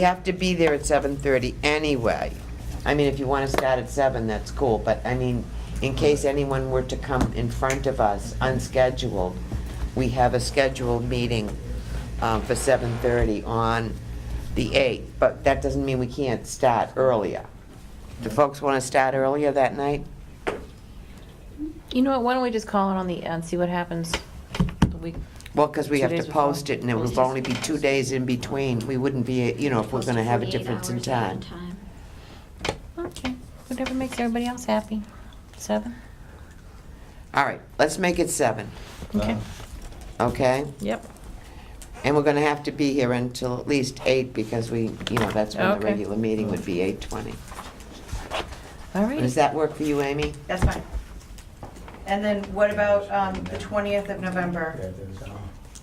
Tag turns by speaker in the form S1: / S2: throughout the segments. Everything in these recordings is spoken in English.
S1: You have to be there at 7:30 anyway. I mean, if you want to start at 7, that's cool, but I mean, in case anyone were to come in front of us unscheduled, we have a scheduled meeting um, for 7:30 on the 8th, but that doesn't mean we can't start earlier. Do folks want to start earlier that night?
S2: You know what, why don't we just call it on the, and see what happens the week?
S1: Well, because we
S2: Two
S1: have
S2: days
S1: to
S2: before.
S1: post it, and it would
S2: Post it.
S1: only be two days in between. We wouldn't be, you know, if we're going to have a difference in time.
S2: Okay, whatever makes everybody else happy. Seven?
S1: All right, let's make it 7,
S2: Okay,
S1: okay?
S2: yep.
S1: And we're gonna have to be here until at least eight, because we, you know, that's when the
S2: Okay.
S1: regular meeting would be eight twenty.
S2: All
S1: Does
S2: right.
S1: that work for you, Amy?
S3: That's fine. And then what about um, the 20th of November?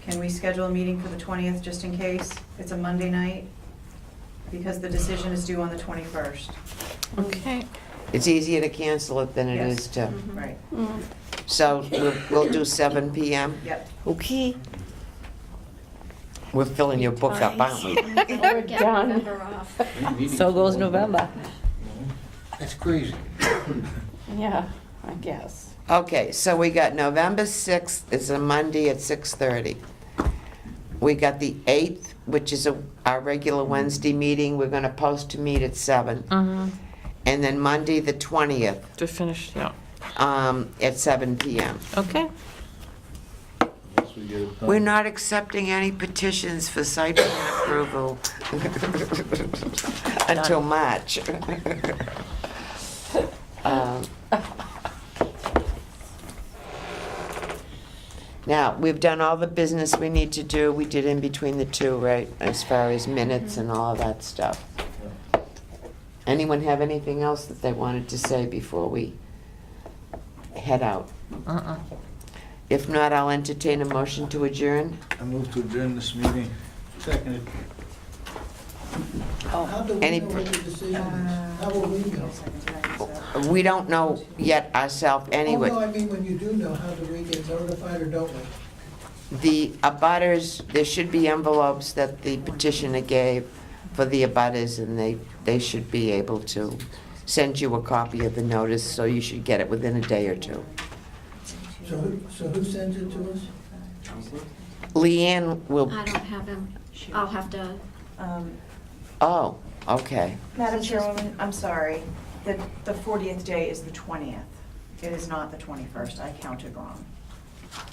S3: Can we schedule a meeting for the 20th, just in case? It's a Monday night, because the decision is due on the 21st.
S2: Okay.
S1: It's easier to cancel it than it
S3: Yes. Mm-hmm.
S1: is to,
S3: Right,
S1: so we'll, we'll do seven PM.
S3: yep.
S2: Okay.
S1: We're filling your book up, aren't we?
S4: We're
S2: done.
S4: off.
S2: So goes November.
S5: That's crazy.
S2: Yeah, I guess.
S1: Okay, so we got November sixth is a Monday at six thirty. We got the eighth, which is a- our regular Wednesday meeting, we're gonna post to meet at seven.
S2: Mm-hmm,
S1: And then Monday, the twentieth,
S2: to finish, yeah.
S1: um, at seven PM.
S2: Okay.
S1: We're not accepting any petitions for site plan approval until March. Um, Now, we've done all the business we need to do, we did in between the two, right, as far as minutes and all of that stuff. Anyone have anything else that they wanted to say before we head out?
S2: Uh-uh.
S1: If not, I'll entertain a motion to adjourn.
S5: I move to adjourn this meeting. Seconded.
S6: How do
S1: Oh, Any
S6: we know
S1: pr-
S6: what the decision is? How will we know?
S1: We don't know yet ourselves
S6: Oh, no,
S1: anyway.
S6: I mean, when you do know, how do we get notified or don't we?
S1: The abutters, there should be envelopes that the petitioner gave for the abutters, and they, they should be able to send you a copy of the notice, so you should get it within a day or two.
S6: So who, so who sends it to us?
S1: Leanne will,
S4: I don't have him. I'll have to,
S3: Um,
S1: oh, okay.
S3: Madam Chairwoman, I'm sorry, the, the 40th day is the 20th. It is not the 21st, I counted wrong.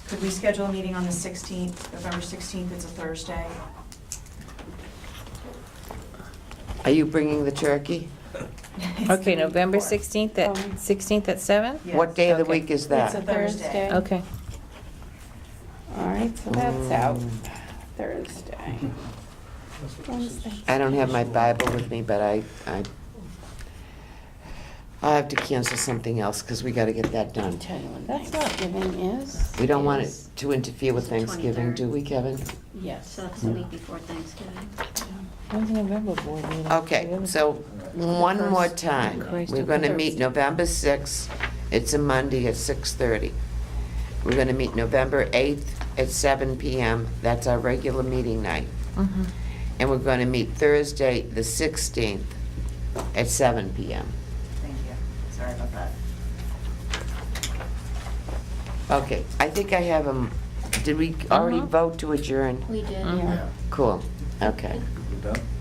S3: Could we schedule a meeting on the 16th, November 16th, it's a Thursday?
S1: Are you bringing the turkey?
S2: Okay, November 16th at, 16th at seven?
S3: Yes.
S1: What day of the
S2: Okay.
S1: week is
S7: It's a
S1: that?
S3: Thursday.
S7: Thursday.
S2: Okay.
S7: All right, so
S1: Mm. Um,
S7: that's out, Thursday. Wednesday.
S1: I don't have my Bible with me, but I, I, I have to cancel something else, because we gotta get that done.
S7: Tell you when Thanksgiving is.
S1: We don't want it
S7: is-
S1: to interfere with Thanksgiving, do
S4: 23rd.
S1: we, Kevin?
S7: Yes.
S4: so that's the week before Thanksgiving.
S2: When's the November board meeting?
S1: Okay, so one more
S2: First.
S1: time.
S2: Christ,
S1: We're gonna
S2: okay.
S1: meet November sixth, it's a Monday at six-thirty. We're gonna meet November eighth at seven PM, that's our regular meeting night.
S2: Mhm.
S1: And we're gonna meet Thursday, the sixteenth, at seven PM.
S3: Thank you, sorry about that.
S1: Okay, I think I have them, did we already
S2: Mhm.
S1: vote to adjourn?
S4: We did.
S7: Mm-hmm.
S2: Mhm.
S7: Yeah.
S1: Cool, okay.
S5: We're done?